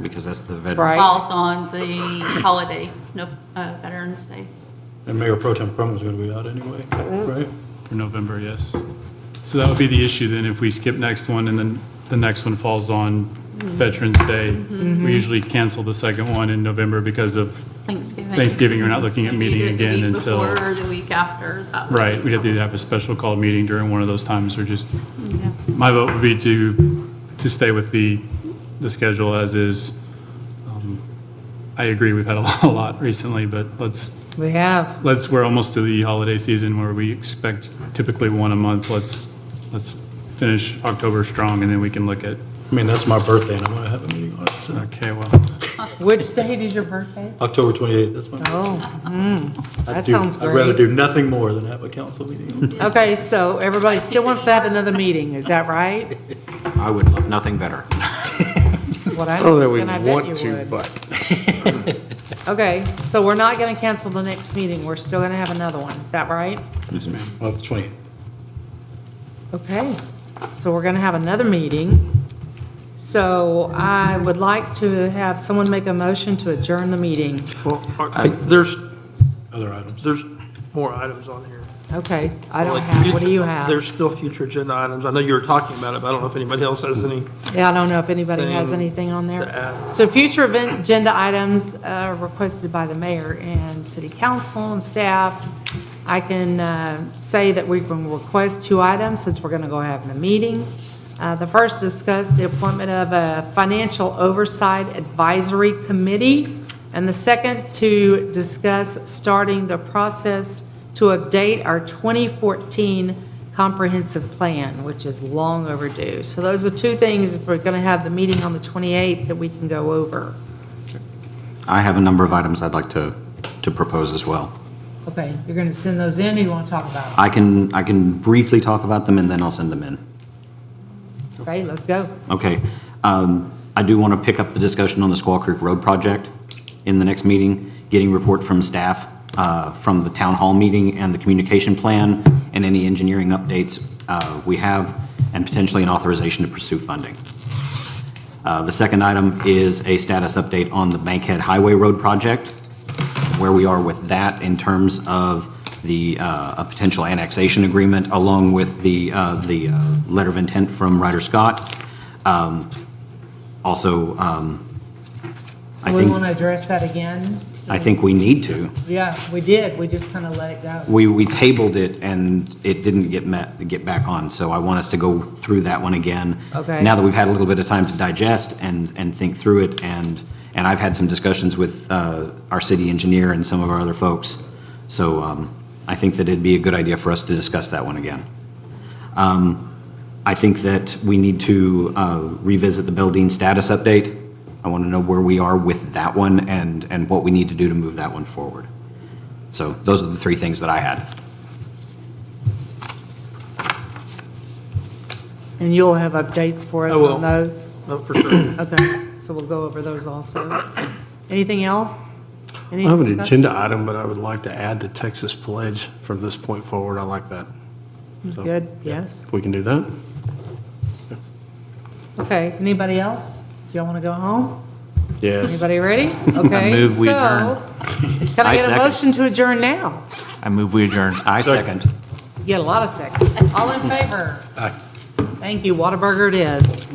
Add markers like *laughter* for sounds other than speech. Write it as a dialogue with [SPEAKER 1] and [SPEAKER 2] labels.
[SPEAKER 1] because that's the veterans.
[SPEAKER 2] Right.
[SPEAKER 3] falls on the holiday, no, uh, Veterans Day.
[SPEAKER 4] And Mayor Pro Tem Crum was going to be out anyway, right?
[SPEAKER 5] For November, yes. So that would be the issue then, if we skip next one and then the next one falls on Veterans Day.
[SPEAKER 3] Mm-hmm.
[SPEAKER 5] We usually cancel the second one in November because of,
[SPEAKER 3] Thanksgiving.
[SPEAKER 5] Thanksgiving, you're not looking at
[SPEAKER 3] We
[SPEAKER 5] meeting
[SPEAKER 3] did it the
[SPEAKER 5] again
[SPEAKER 3] week
[SPEAKER 5] until-
[SPEAKER 3] Before, the week after. that was-
[SPEAKER 5] right, we'd have to have a special called meeting during one of those times or just,
[SPEAKER 3] Yeah.
[SPEAKER 5] my vote would be to, to stay with the, the schedule as is. Um, I agree, we've had a *laughs* lot- a lot recently, but let's,
[SPEAKER 2] We have.
[SPEAKER 5] let's, we're almost to the holiday season where we expect typically one a month. Let's, let's finish October strong and then we can look at, uh,
[SPEAKER 4] I mean, that's my birthday, and I'm going to have a meeting on it, so.
[SPEAKER 5] okay, well,
[SPEAKER 2] Which date is your birthday?
[SPEAKER 4] October 28th, that's my.
[SPEAKER 2] Oh,
[SPEAKER 4] I
[SPEAKER 2] that
[SPEAKER 4] do-
[SPEAKER 2] sounds
[SPEAKER 4] I'd rather
[SPEAKER 2] great.
[SPEAKER 4] do nothing more than have a council meeting. on it.
[SPEAKER 2] okay, so everybody still wants to have another meeting, is that right?
[SPEAKER 1] I would love nothing better.
[SPEAKER 2] That's what I
[SPEAKER 6] I don't know that
[SPEAKER 2] and I
[SPEAKER 6] we
[SPEAKER 2] bet
[SPEAKER 6] want
[SPEAKER 2] you
[SPEAKER 6] to,
[SPEAKER 2] would. *laughs*
[SPEAKER 6] but
[SPEAKER 2] Okay, so we're not gonna cancel the next meeting, we're still gonna have another one, is that right?
[SPEAKER 5] yes, ma'am.
[SPEAKER 4] Well, the 28th.
[SPEAKER 2] Okay, so we're gonna have another meeting. So I would like to have someone make a motion to adjourn the meeting.
[SPEAKER 1] I- There's,
[SPEAKER 4] Other items.
[SPEAKER 7] There's more items on here.
[SPEAKER 2] Okay, I don't
[SPEAKER 7] Like
[SPEAKER 2] have, what do you
[SPEAKER 7] future-
[SPEAKER 2] have?
[SPEAKER 7] There's still future agenda items. I know you were talking about it, but I don't know if anybody else has any.
[SPEAKER 2] Yeah, I don't know if anybody has
[SPEAKER 7] Thing
[SPEAKER 2] anything on
[SPEAKER 7] to
[SPEAKER 2] there.
[SPEAKER 7] add.
[SPEAKER 2] So future event agenda items uh, requested by the mayor and city council and staff. I can uh, say that we can request two items since we're going to go have the meeting. Uh, The first discuss the appointment of a financial oversight advisory committee. And the second to discuss starting the process to update our 2014 comprehensive plan, which is long overdue. So those are two things, if we're going to have the meeting on the 28th, that we can go over.
[SPEAKER 1] I have a number of items I'd like to, to propose as well.
[SPEAKER 2] Okay, you're going to send those in, or you want to talk about
[SPEAKER 1] I can, I can briefly talk about them and then I'll send them in.
[SPEAKER 2] it? Okay, let's go.
[SPEAKER 1] Okay. Um, I do want to pick up the discussion on the Squaw Creek Road project in the next meeting, getting report from staff, uh, from the town hall meeting and the communication plan, and any engineering updates uh, we have, and potentially an authorization to pursue funding. Uh, The second item is a status update on the Bankhead Highway Road project, where we are with that in terms of the, uh, a potential annexation agreement, along with the, uh, the uh, letter of intent from Ryder Scott. Um, Also, um, I
[SPEAKER 2] So we
[SPEAKER 1] think,
[SPEAKER 2] want to address that again?
[SPEAKER 1] I think we need to.
[SPEAKER 2] Yeah, we did, we just kind of let it go.
[SPEAKER 1] We, we tabled it and it didn't get met, get back on, so I want us to go through that one again.
[SPEAKER 2] Okay.
[SPEAKER 1] Now that we've had a little bit of time to digest and, and think through it, and, and I've had some discussions with uh, our city engineer and some of our other folks. So um, I think that it'd be a good idea for us to discuss that one again. Um, I think that we need to uh, revisit the Belledean status update. I want to know where we are with that one and, and what we need to do to move that one forward. So those are the three things that I had.
[SPEAKER 2] And you'll have updates for us
[SPEAKER 7] I will.
[SPEAKER 2] on those?
[SPEAKER 7] No, for sure.
[SPEAKER 2] Okay, so we'll go over those also. Anything else?
[SPEAKER 6] I have an agenda item, but I would like to add the Texas pledge from this point forward. I like that. So,
[SPEAKER 2] Good, yes.
[SPEAKER 6] If we can do that.
[SPEAKER 2] Okay, anybody else? Do y'all want to go home?
[SPEAKER 6] Yes.
[SPEAKER 2] Anybody ready? Okay.
[SPEAKER 8] move we
[SPEAKER 2] so- Can I
[SPEAKER 1] I
[SPEAKER 2] get a
[SPEAKER 1] second.
[SPEAKER 2] motion to adjourn now?
[SPEAKER 8] I move we adjourn.
[SPEAKER 1] I second.
[SPEAKER 2] You get a lot of seconds. All in favor? Thank you, Whataburger it is.